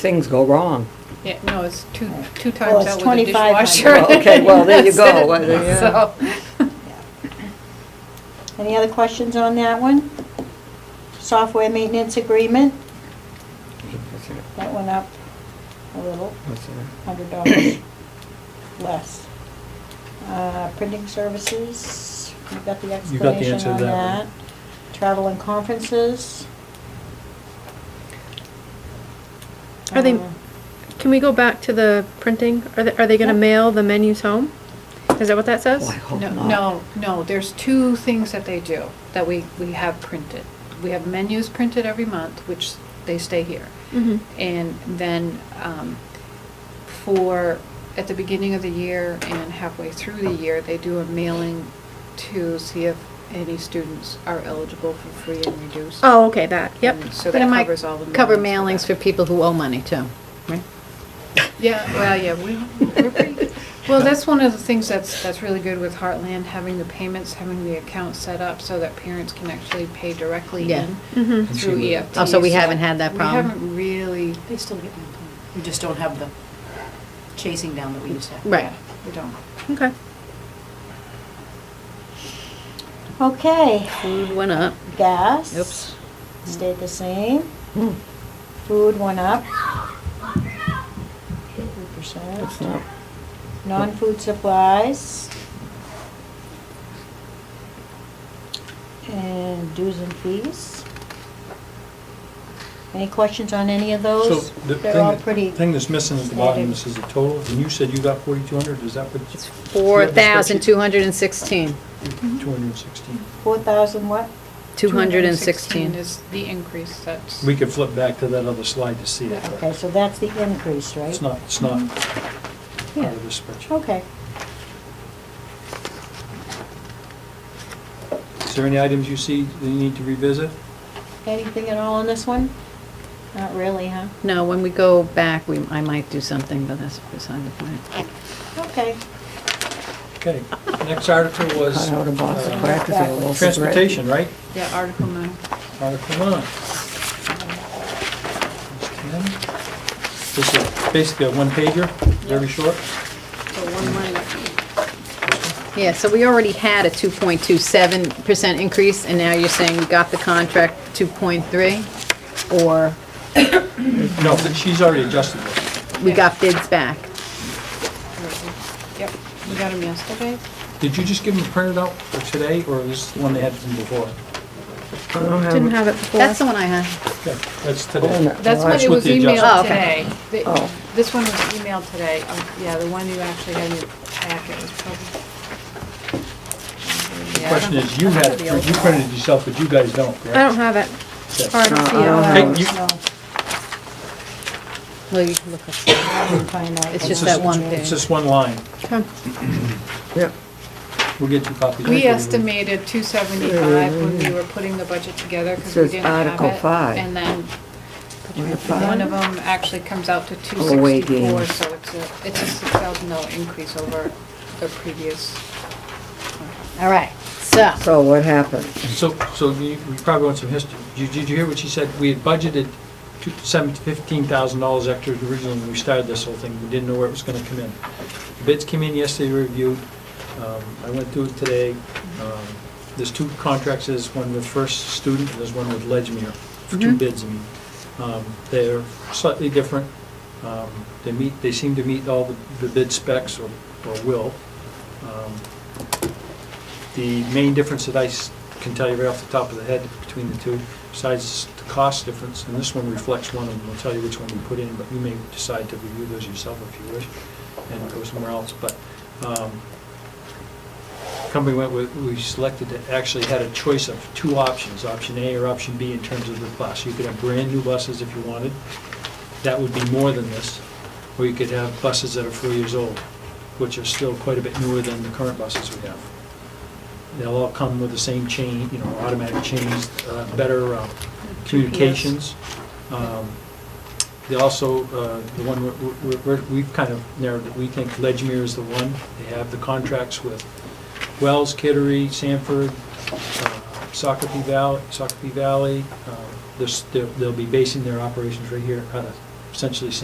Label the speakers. Speaker 1: things go wrong.
Speaker 2: Yeah, no, it's two, two
Speaker 3: Well,
Speaker 2: times
Speaker 3: it's
Speaker 2: out with the
Speaker 3: 2,500.
Speaker 2: dishwasher.
Speaker 1: Well, okay, well, there you
Speaker 2: That's
Speaker 1: go.
Speaker 2: it.
Speaker 1: Well, there you go.
Speaker 2: So,
Speaker 3: Any other questions on that one? Software maintenance agreement, that went up a little,
Speaker 1: What's that?
Speaker 3: hundred dollars less. Uh, Printing services, you got the
Speaker 4: You got the
Speaker 3: explanation
Speaker 4: answer to
Speaker 3: on
Speaker 4: that
Speaker 3: that.
Speaker 4: one.
Speaker 3: Travel and conferences.
Speaker 5: Are they-
Speaker 3: Uh,
Speaker 5: Can we go back to the printing? Are they, are they gonna
Speaker 3: Yep.
Speaker 5: mail the menus home? Is that what that
Speaker 1: Oh, I
Speaker 5: says?
Speaker 1: hope
Speaker 2: no,
Speaker 1: not.
Speaker 2: no, no, there's two things that they do that we, we have printed. We have menus printed every month, which they stay here.
Speaker 5: Mhm.
Speaker 2: And then um, for, at the beginning of the year and halfway through the year, they do a mailing to see if any students are eligible for free and reduced.
Speaker 5: Oh, okay, that, yep.
Speaker 2: And So
Speaker 6: But it
Speaker 2: that
Speaker 6: might
Speaker 2: covers all the.
Speaker 6: Cover
Speaker 2: mailings
Speaker 6: mailings
Speaker 2: for
Speaker 6: for
Speaker 2: that.
Speaker 6: people who owe money too, right?
Speaker 2: Yeah, well, yeah, we, we're pretty good. Well, that's one of the things that's, that's really good with Heartland, having the payments, having the account set up so that parents can actually pay directly
Speaker 6: Yeah.
Speaker 2: in
Speaker 5: Mhm.
Speaker 4: And she
Speaker 2: through
Speaker 4: would-
Speaker 2: EFT.
Speaker 6: Oh, so we
Speaker 2: So
Speaker 6: haven't had that problem?
Speaker 2: We haven't really,
Speaker 7: They still get them. We just don't have the chasing down that we used to have.
Speaker 6: Right.
Speaker 2: we don't.
Speaker 5: Okay.
Speaker 3: Okay,
Speaker 6: Food went up.
Speaker 3: gas.
Speaker 6: Oops.
Speaker 3: Stayed the same.
Speaker 1: Hmm,
Speaker 3: Food went up. Three percent.
Speaker 1: That's not,
Speaker 3: Non-food supplies. And dues and fees. Any questions on any of
Speaker 4: So
Speaker 3: those?
Speaker 4: the
Speaker 3: They're
Speaker 4: thing
Speaker 3: all
Speaker 4: that-
Speaker 3: pretty,
Speaker 4: Thing that's missing at the bottom, this is the total, and you said you got forty-two hundred, is that what?
Speaker 6: It's four thousand two hundred and sixteen.
Speaker 4: Two hundred and sixteen.
Speaker 3: four thousand what?
Speaker 6: Two hundred and sixteen.
Speaker 2: Is the increase that's.
Speaker 4: We could flip back to that other slide to see it. but
Speaker 3: Okay, so that's the increase, right?
Speaker 4: It's not, it's not
Speaker 3: Yeah.
Speaker 4: out of the spreadsheet.
Speaker 3: Okay.
Speaker 4: Is there any items you see that you need to revisit?
Speaker 3: Anything at all on this one? Not really, huh?
Speaker 6: No, when we go back, we, I might do something, but that's beside the point.
Speaker 3: Okay.
Speaker 4: Okay, next article was
Speaker 1: cut out a box of
Speaker 4: uh,
Speaker 1: crackers and a little cigarette.
Speaker 4: transportation, right?
Speaker 2: Yeah, Article nine.
Speaker 4: Article nine. There's Ken. This is basically a one pager, very short.
Speaker 2: So one line.
Speaker 6: Yeah, so we already had a two point two seven percent increase, and now you're saying we got the contract two point three? Or
Speaker 4: No, but she's already adjusted this.
Speaker 6: we got bids back?
Speaker 2: Yep, we got them yesterday.
Speaker 4: Did you just give them a printed out for today, or is this the one they had from before?
Speaker 1: I don't have
Speaker 5: Didn't
Speaker 1: it.
Speaker 5: have it before.
Speaker 6: That's the one I had.
Speaker 4: Okay, that's
Speaker 1: Oh, no.
Speaker 4: today.
Speaker 2: That's
Speaker 1: Well,
Speaker 2: what
Speaker 4: that's
Speaker 2: it
Speaker 4: what
Speaker 2: was
Speaker 4: the adjustment-
Speaker 2: emailed
Speaker 6: Oh, okay.
Speaker 2: today. The-
Speaker 1: Oh.
Speaker 2: This one was emailed today. Um, Yeah, the one you actually had in your packet was probably.
Speaker 4: The question is, you had, it print- you printed it yourself, but you guys don't, correct?
Speaker 5: I don't have it. Or I don't see
Speaker 1: No, I don't
Speaker 5: it.
Speaker 1: have
Speaker 4: Hey, you-
Speaker 3: No,
Speaker 6: Well, you can look up.
Speaker 3: I didn't find out.
Speaker 6: It's
Speaker 4: it's
Speaker 6: just that one
Speaker 4: It's
Speaker 6: page.
Speaker 4: just one line.
Speaker 5: Okay.
Speaker 1: Yeah,
Speaker 4: We'll get you copies.
Speaker 2: We estimated two seventy-five when we were putting the budget together because we
Speaker 1: says
Speaker 2: didn't have it.
Speaker 1: Article five.
Speaker 2: And then
Speaker 1: Article
Speaker 2: one
Speaker 1: five.
Speaker 2: of them actually comes out to two
Speaker 1: Oh, wait,
Speaker 2: sixty-four,
Speaker 1: yeah.
Speaker 2: so it's a, it's a six thousand dollar increase over the previous.
Speaker 6: All right, so,
Speaker 1: so what happened?
Speaker 4: So, so you- we probably want some history. Did you- did you hear what she said? We had budgeted two- seven- $15,000 extra originally when we started this whole thing. We didn't know where it was going to come in. Bids came in yesterday, we reviewed. Um, I went through it today. Um, There's two contracts, there's one with First Student, and there's one with Ledgmere, for two bids, I mean. Um, They're slightly different. Um, They meet, they seem to meet all the- the bid specs, or or will. Um, the main difference that I s- can tell you right off the top of the head between the two, besides the cost difference, and this one reflects one, and we'll tell you which one we put in, but you may decide to review those yourself if you wish, and go somewhere else, but, um, company went with, we selected, to- actually had a choice of two options, option A or option B in terms of the bus. You could have brand-new buses if you wanted, that would be more than this, or you could have buses that are four years old, which are still quite a bit newer than the current buses we have. They'll all come with the same chain, you know, automatic chains, uh, better uh, communications. Um, They also, uh, the one, we're- we're- we're- we've kind of narrowed it, we think Ledgmere is the one. They have the contracts with Wells, Kittery, Sanford, uh, Sockopee Um, Valley, Sockopee Valley. uh, this- They'll they'll be basing their operations right here out of essentially same